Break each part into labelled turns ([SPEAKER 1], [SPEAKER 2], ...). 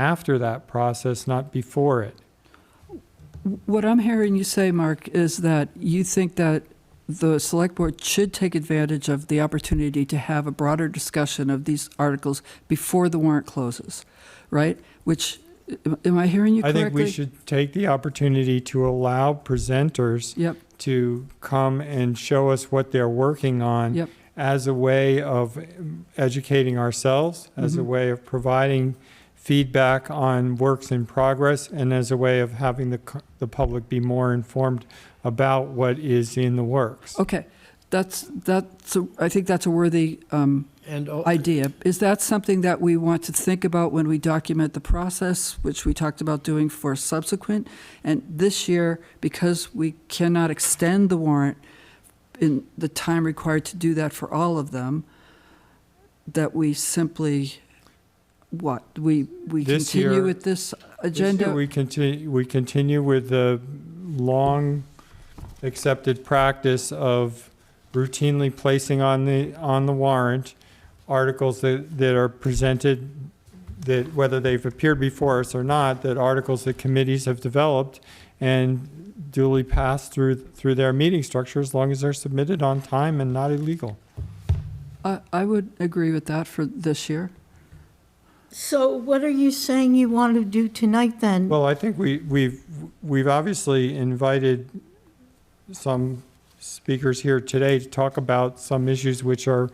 [SPEAKER 1] after that process, not before it.
[SPEAKER 2] What I'm hearing you say, Mark, is that you think that the select board should take advantage of the opportunity to have a broader discussion of these articles before the warrant closes, right? Which, am- am I hearing you
[SPEAKER 1] I
[SPEAKER 2] correctly?
[SPEAKER 1] think we should take the opportunity to allow presenters
[SPEAKER 2] Yep,
[SPEAKER 1] to come and show us what they're working on
[SPEAKER 2] Yep.
[SPEAKER 1] as a way of educating ourselves, as a
[SPEAKER 2] Mhm.
[SPEAKER 1] way of providing feedback on works in progress, and as a way of having the, co- the public be more informed about what is in the works.
[SPEAKER 2] okay. That's, that's, a- I think that's a worthy um,
[SPEAKER 3] And, al-
[SPEAKER 2] idea. Is that something that we want to think about when we document the process, which we talked about doing for subsequent? And this year, because we cannot extend the warrant in the time required to do that for all of them, that we simply, what, we, we
[SPEAKER 1] This
[SPEAKER 2] continue
[SPEAKER 1] year-
[SPEAKER 2] with this
[SPEAKER 1] This year,
[SPEAKER 2] agenda?
[SPEAKER 1] We continue, we continue with the long accepted practice of routinely placing on the, on the warrant articles that, that are presented, that whether they've appeared before us or not, that articles that committees have developed and duly passed through, through their meeting structure as long as they're submitted on time and not illegal.
[SPEAKER 2] I, I would agree with that for this year.
[SPEAKER 4] So what are you saying you want to do tonight, then?
[SPEAKER 1] Well, I think we, we've, we've obviously invited some speakers here today to talk about some issues which are,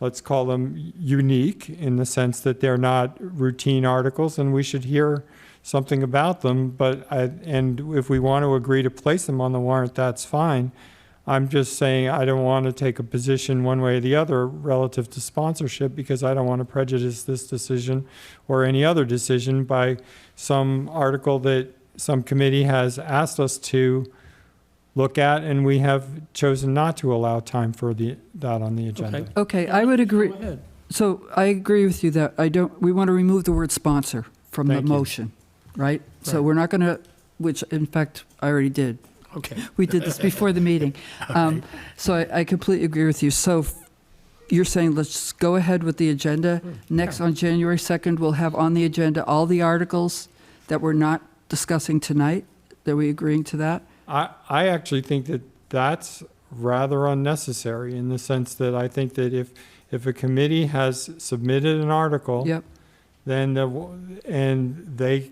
[SPEAKER 1] let's call them unique in the sense that they're not routine articles and we should hear something about them. But I, and if we want to agree to place them on the warrant, that's fine. I'm just saying I don't want to take a position one way or the other relative to sponsorship because I don't want to prejudice this decision or any other decision by some article that some committee has asked us to look at, and we have chosen not to allow time for the, that on the agenda.
[SPEAKER 3] Okay.
[SPEAKER 2] Okay, I would agree.
[SPEAKER 3] go ahead.
[SPEAKER 2] So I agree with you that I don't, we want to remove the word sponsor from the
[SPEAKER 1] Thank you.
[SPEAKER 2] motion, right? So
[SPEAKER 3] Right.
[SPEAKER 2] we're not going to, which in fact, I already did.
[SPEAKER 3] Okay.
[SPEAKER 2] We did this before the meeting. Um, So I- I completely agree with you. So f- you're saying let's go ahead with the agenda.
[SPEAKER 1] Hmm.
[SPEAKER 2] Next, on January 2nd, we'll have on the agenda all the articles that we're not discussing tonight. Are we agreeing to that?
[SPEAKER 1] I, I actually think that that's rather unnecessary in the sense that I think that if, if a committee has submitted an article,
[SPEAKER 2] Yep,
[SPEAKER 1] then the, w- and they,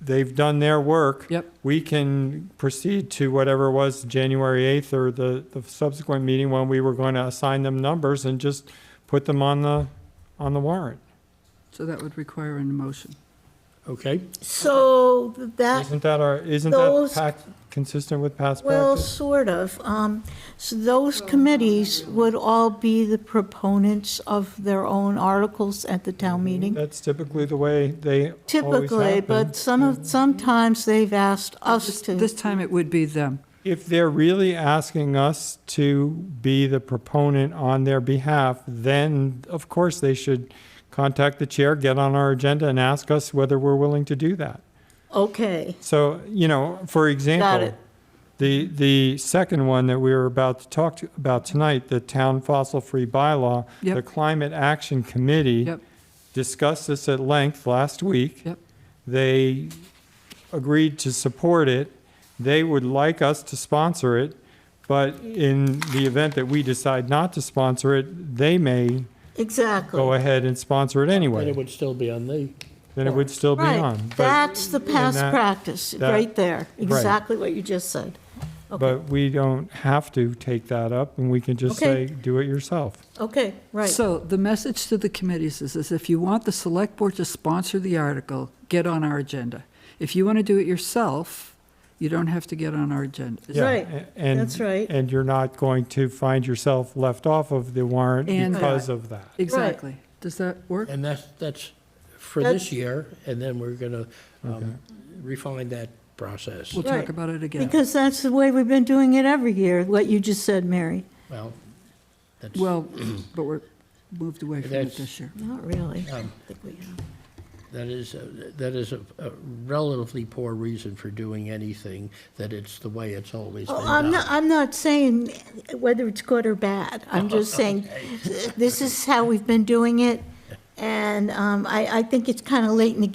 [SPEAKER 1] they've done their work.
[SPEAKER 2] Yep.
[SPEAKER 1] We can proceed to whatever it was January 8th or the, the subsequent meeting when we were going to assign them numbers and just put them on the, on the warrant.
[SPEAKER 2] so that would require an motion.
[SPEAKER 3] Okay,
[SPEAKER 4] So that,
[SPEAKER 1] Isn't that our, isn't that
[SPEAKER 4] Uh, Those-
[SPEAKER 1] pac- consistent with past
[SPEAKER 4] well,
[SPEAKER 1] practice?
[SPEAKER 4] sort of. Um, So those committees would all be the proponents of their own articles at the town meeting?
[SPEAKER 1] That's typically the way they Mm-hmm. always Mm-hmm.
[SPEAKER 4] Typically,
[SPEAKER 1] happen.
[SPEAKER 4] but some of, sometimes they've asked us
[SPEAKER 2] This-
[SPEAKER 4] to.
[SPEAKER 2] This time it would be them.
[SPEAKER 1] If they're really asking us to be the proponent on their behalf, then of course they should contact the chair, get on our agenda and ask us whether we're willing to do that.
[SPEAKER 4] Okay,
[SPEAKER 1] So, you know, for example,
[SPEAKER 4] it.
[SPEAKER 1] the, the second one that we were about to talk to- about tonight, the town fossil-free bylaw,
[SPEAKER 2] Yep.
[SPEAKER 1] the Climate Action Committee
[SPEAKER 2] Yep.
[SPEAKER 1] discussed this at length last week.
[SPEAKER 2] Yep.
[SPEAKER 1] They agreed to support it. They would like us to sponsor it, but in the event that we decide not to sponsor it, they may go
[SPEAKER 4] exactly.
[SPEAKER 1] ahead and sponsor it
[SPEAKER 3] then it
[SPEAKER 1] anyway.
[SPEAKER 3] would still be on the,
[SPEAKER 1] Then it would still be
[SPEAKER 4] Right,
[SPEAKER 1] on. But,
[SPEAKER 4] that's the past
[SPEAKER 1] that-
[SPEAKER 4] practice,
[SPEAKER 1] that-
[SPEAKER 4] right there. Exactly what you just said.
[SPEAKER 1] but we don't have to take that up, and we can just say,
[SPEAKER 4] Okay.
[SPEAKER 1] do it yourself.
[SPEAKER 4] Okay, right.
[SPEAKER 2] So the message to the committees is, is if you want the select board to sponsor the article, get on our agenda. If you want to do it yourself, you don't have to get on our agenda.
[SPEAKER 1] Yeah,
[SPEAKER 4] Right.
[SPEAKER 1] a- and-
[SPEAKER 4] That's right.
[SPEAKER 1] And you're not going to find yourself left off of the warrant
[SPEAKER 2] And-
[SPEAKER 1] because of that.
[SPEAKER 2] Exactly. Does that work?
[SPEAKER 3] and that's, that's for
[SPEAKER 4] That's-
[SPEAKER 3] this year, and then we're going to refine that process.
[SPEAKER 2] We'll talk
[SPEAKER 4] Right.
[SPEAKER 2] about it again.
[SPEAKER 4] Because that's the way we've been doing it every year, what you just said, Mary.
[SPEAKER 3] Well, that's,
[SPEAKER 2] Well, but we're moved away from it
[SPEAKER 3] That's-
[SPEAKER 2] this year.
[SPEAKER 4] Not really. I
[SPEAKER 3] Um,
[SPEAKER 4] think we have.
[SPEAKER 3] that is, a- that is a a relatively poor reason for doing anything, that it's the way it's always been
[SPEAKER 4] Oh, I'm
[SPEAKER 3] done.
[SPEAKER 4] not, I'm not saying whether it's good or bad. I'm just saying, this is how we've been doing it, And um, I, I think it's kind of late in the